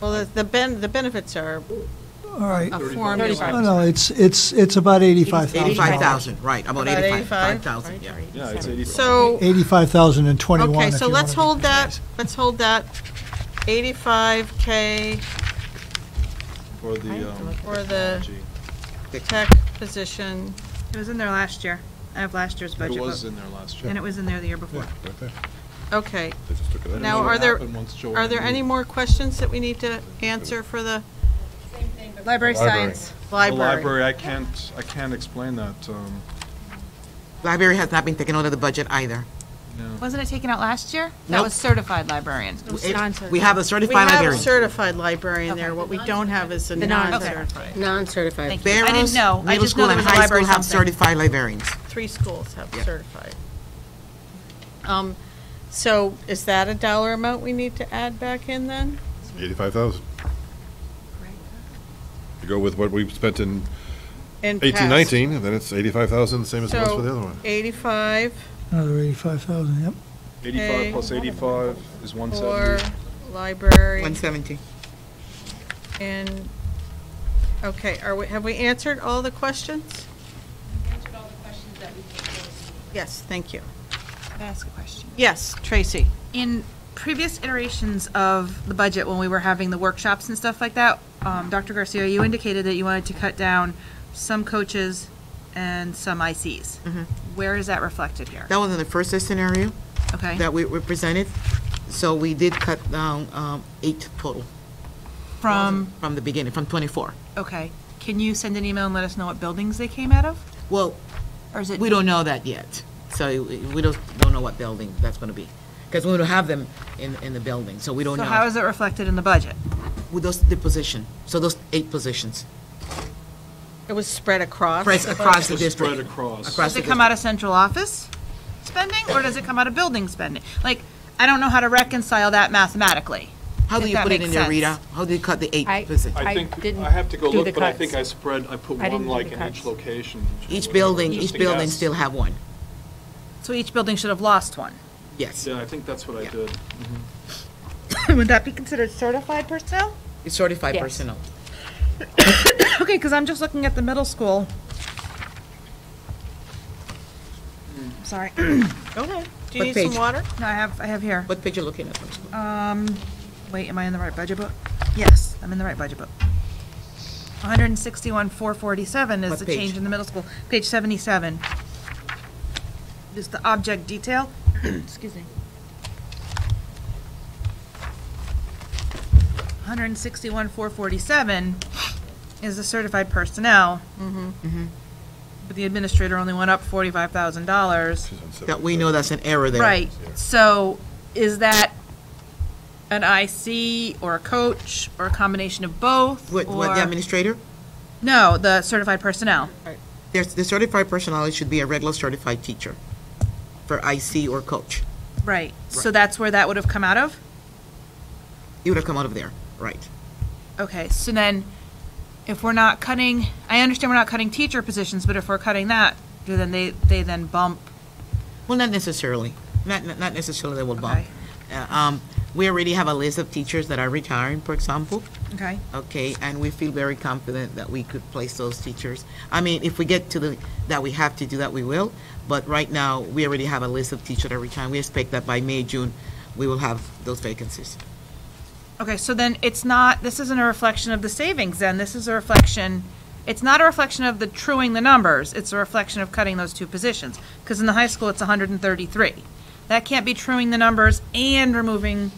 Well, the- the ben, the benefits are All right. a No, formula. no, it's, it's, it's about 85,000. 85,000, right, about About 85,000, yeah. Yeah, it's 85. So, 85,021, okay, if so you let's wanna be hold that, precise. let's hold that 85K For the, um, for the gee, tech position. It was in there last year. I have last year's budget it was book. in there last year. And it was in there the year before. Okay, They just took it out. now what are there, happened once Joanne are there any more questions that we need to answer for the Library science. The library? library, I can't, I can't explain that, um, Library has not been taken out of the budget either. Wasn't it taken out last year? Nope. That was certified librarian. It- We have a We certified have a librarian. certified liarian there, what we don't have is a non-certified. Non-certified. Thank you. I didn't know. I Middle just know school there and was a high school library have something. certified librarians. Three schools have Yeah. certified. Um, So is that a dollar amount we need to add back in then? 85,000. You go with what we spent in In eighteen past- nineteen, and then it's 85,000, the same as it was for the other So one. eighty-five Another 85,000, yep. Okay. eighty-five plus eighty-five is one for seventy. library 170. and, okay, are we, have we answered all the questions? answered all the questions that we came forward with. Yes, thank you. Can I ask a question? Yes, Tracy. In previous iterations of the budget, when we were having the workshops and stuff like that, um, Dr. Garcia, you indicated that you wanted to cut down some coaches and some ICs. Mm-hmm. Where is that reflected here? That was in the first scenario Okay. that we we presented, so we did cut down um, eight total From, from the beginning, from 24. okay. Can you send an email and let us know what buildings they came out of? Well, Or is it? we don't know that yet, so we- we don't don't know what building that's going to be, because we don't have them in in the building, so we don't So how know. is it reflected in the budget? With those, the position, so those eight positions, It was spread across. press across the It was spread district. across. Across Does the it come out of central office spending, or does it come out of building spending? Like, I don't know how to reconcile that mathematically. How do if you that put it makes in there, sense. Rita? How do you cut the eight I- positions? I I think, didn't I have to go do look, the but I cuts. think I spread, I put I one didn't do like the in each cuts. location. Each whatever, building, just each to building guess. still have one, So each building should have lost one. yes. Yeah, I think that's what I Yeah. did. Would that be considered certified personnel? It's certified Yes. personnel. Okay, because I'm just looking at the middle school. Sorry. Okay. Do you What need page? some water? No, I have, I have here. What page you looking at? first? Um, Wait, am I in the right budget book? Yes, I'm in the right budget book. 161, 447 is What the page? change in the middle school, page 77. Just the object detail, excuse me. 161, 447 is the certified personnel. Mm-hmm. But the administrator only went up $45,000. That we know that's an error there. Right, so is that an IC or a coach or a combination of both? What, what the or- administrator? No, the certified personnel. There's, the certified personnel, it should be a regular certified teacher for IC or coach. Right, so that's where that would have come out of? It would have come out of there, right. Okay, so then if we're not cutting, I understand we're not cutting teacher positions, but if we're cutting that, do then they, they then bump, Well, not necessarily, not, not not necessarily they will bump. Okay. Uh, um, We already have a list of teachers that are retiring, for example, okay? okay? And we feel very confident that we could place those teachers. I mean, if we get to the, that we have to do that, we will. But right now, we already have a list of teachers that are retiring. We expect that by May, June, we will have those vacancies. Okay, so then it's not, this isn't a reflection of the savings then, this is a reflection, it's not a reflection of the truing the numbers, it's a reflection of cutting those two positions. Because in the high school, it's hundred and thirty-three. That can't be truing the numbers and removing,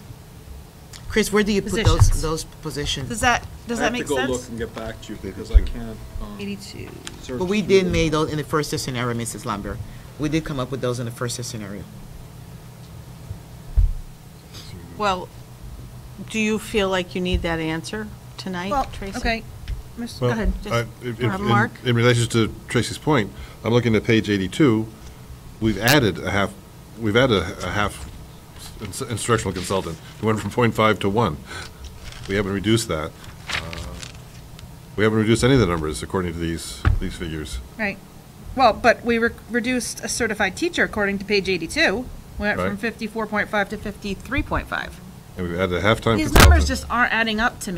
Chris, where do you put those, Positions. those positions? does that, does that make I have to go look sense? and get back to you because I can't, um, Eighty-two. search. But we did through. make those in the first scenario, Mrs. Lambert. We did come up with those in the first scenario. Well, do you feel like you need that answer tonight, Well, Tracy? okay. Miss- Go Well, ahead. I- if- if- Uh, in- Mark? In relation to Tracy's point, I'm looking at page 82, we've added a half, we've added a a half ins- instructional consultant. We went from .5 to 1. We haven't reduced that. Uh, We haven't reduced any of the numbers according to these, these figures. Right. Well, but we re- reduced a certified teacher according to page eighty-two. Went from Right. fifty-four point five to fifty-three point five. And we've added a halftime consultant. These numbers just aren't adding up to me.